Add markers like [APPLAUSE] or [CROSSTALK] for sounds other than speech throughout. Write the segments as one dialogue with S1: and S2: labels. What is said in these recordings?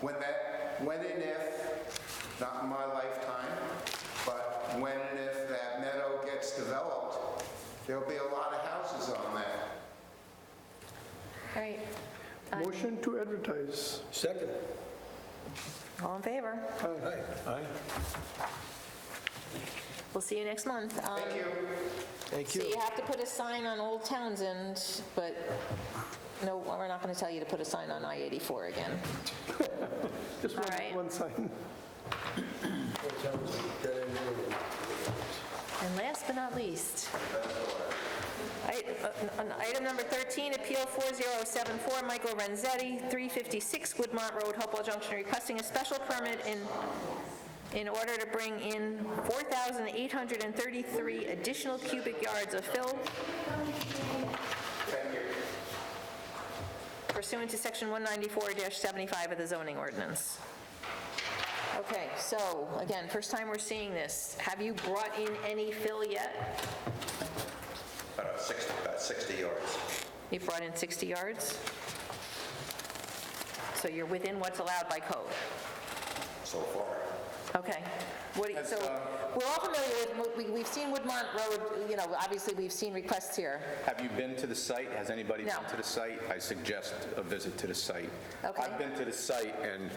S1: When that, when and if, not in my lifetime, but when and if that meadow gets developed, there'll be a lot of houses on that.
S2: All right,
S3: Motion to advertise.
S4: Second.
S2: all in favor?
S4: Aye. Aye.
S2: We'll see you next month. Um,
S1: Thank you.
S4: Thank
S2: So
S4: you.
S2: you have to put a sign on Old Townsend, but no, we're not going to tell you to put a sign on I-84 again.
S3: Just one-
S2: All right.
S3: one sign.
S2: And last but not least, I- uh, on item number 13, Appeal 4074, Michael Renzetti, 356 Woodmont Road, Hopewell Junction, requesting a special permit in, in order to bring in 4,833 additional cubic yards of fill pursuant to Section 194-75 of the zoning ordinance. Okay, so, again, first time we're seeing this. Have you brought in any fill yet?
S5: About 60, about 60 yards.
S2: You've brought in 60 yards? So you're within what's allowed by code?
S5: so far.
S2: Okay. What, do you- so, we're all familiar with, we- we've seen Woodmont Road, you know, obviously, we've seen requests here.
S6: Have you been to the site? Has anybody
S2: No.
S6: been to the site? I suggest a visit to the site.
S2: Okay.
S6: I've been to the site, and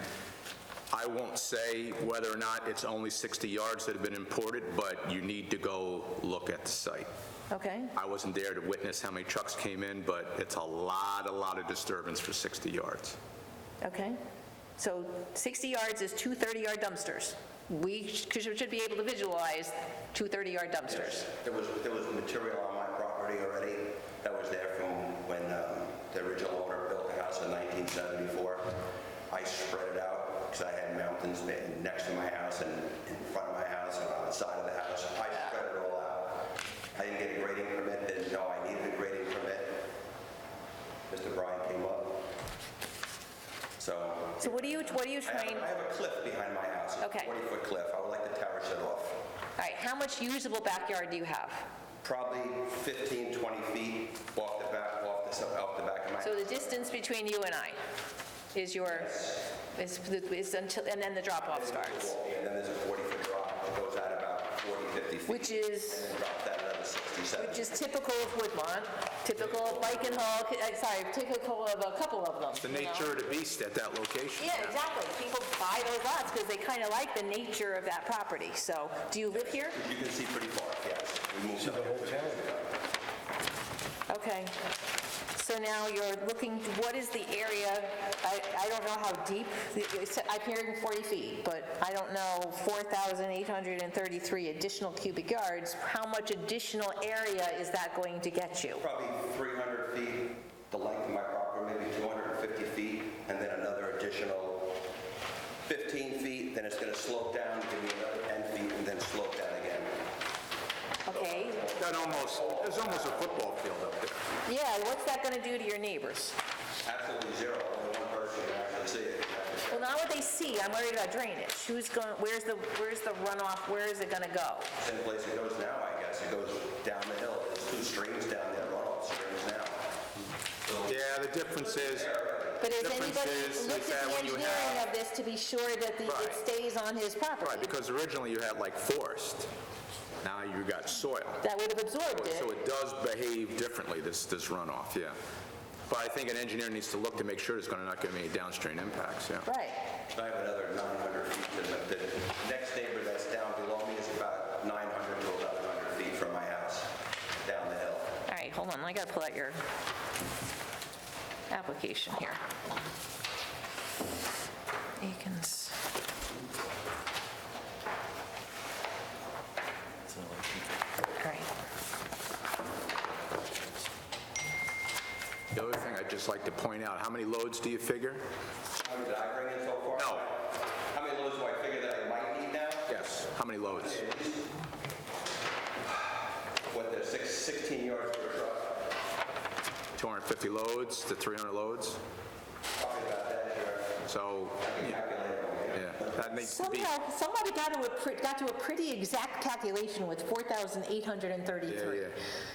S6: I won't say whether or not it's only 60 yards that have been imported, but you need to go look at the site.
S2: Okay?
S6: I wasn't there to witness how many trucks came in, but it's a lot, a lot of disturbance for 60 yards.
S2: Okay. So 60 yards is two 30-yard dumpsters. We sh- should be able to visualize two 30-yard dumpsters.
S5: There was, there was material on my property already that was there from when um, the original owner built the house in 1974. I spread it out because I had mountains be- next to my house and in front of my house and on the side of the house. I spread it all out. I didn't get a grading permit, didn't know I needed a grading permit. Mr. Bryan came up. So
S2: So what are you, what are you
S5: I have-
S2: trying,
S5: I
S2: all
S5: have a cliff behind my house. It's a
S2: Okay.
S5: 40-foot cliff. I would like to terrace it off.
S2: right, how much usable backyard do you have?
S5: probably 15, 20 feet off the back, off the, off the back of my,
S2: So the distance between you and I is your, is, is until, and then the drop-off starts,
S5: and then there's a 40-foot drop that goes out about 40, 50 feet.
S2: which is,
S5: And drop that another 60, 70.
S2: which is typical of Woodmont, typical of Bike and Hulk, uh, sorry, typical of a couple of them.
S6: The
S2: you know?
S6: nature of the beast at that location.
S2: Yeah, exactly. People buy those lots because they kind of like the nature of that property. So, do you live here?
S5: You can see pretty far, yes. We moved up here.
S2: Okay. So now you're looking, what is the area, I, I don't know how deep, I'm hearing 40 feet, but I don't know, 4,833 additional cubic yards, how much additional area is that going to get you?
S5: Probably 300 feet, the length of my property, maybe 250 feet, and then another additional 15 feet, then it's going to slope down, give me another 10 feet, and then slope down again.
S2: Okay,
S6: That almost, there's almost a football field up there.
S2: yeah, what's that going to do to your neighbors?
S5: Absolutely zero, only one person can actually see it.
S2: Well, not what they see, I'm worried about drainage. Who's going, where's the, where's the runoff, where is it going to go?
S5: Same place it goes now, I guess. It goes down the hill. There's two streams down there, runoff streams now.
S6: Yeah, the difference is, uh,
S2: But has
S6: Difference
S2: anybody
S6: is- is
S2: looked at the
S6: that when you
S2: engineering
S6: have-
S2: of this to be sure that the- it
S6: Right.
S2: stays on his
S6: right,
S2: property?
S6: because originally you had like forest, now you got soil.
S2: That would have absorbed
S6: So
S2: it.
S6: it does behave differently, this, this runoff, yeah. But I think an engineer needs to look to make sure there's gonna not gonna be any downstream impacts, yeah.
S2: Right.
S5: I have another 900 feet to the, the next neighbor that's down below me is about 900 to 1100 feet from my house, down the hill.
S2: All right, hold on, I gotta pull out your application here. Akins. All right.
S6: The other thing I'd just like to point out, how many loads do you figure?
S5: How many did I bring in so far?
S6: No.
S5: How many loads do I figure that I might need now?
S6: Yes. How many loads?
S5: What, the six- 16 yards per truck?
S6: 250 loads to 300 loads?
S5: Probably about that here.
S6: So, yeah,
S5: Calculate it.
S6: yeah, that needs to be,
S2: Somehow, somebody got to a, pre- got to a pretty exact calculation with 4,833.
S6: Yeah, yeah.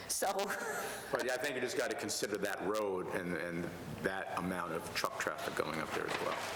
S2: So, [LAUGHS]
S6: but I think you just gotta consider that road and, and that amount of truck traffic going up there as well.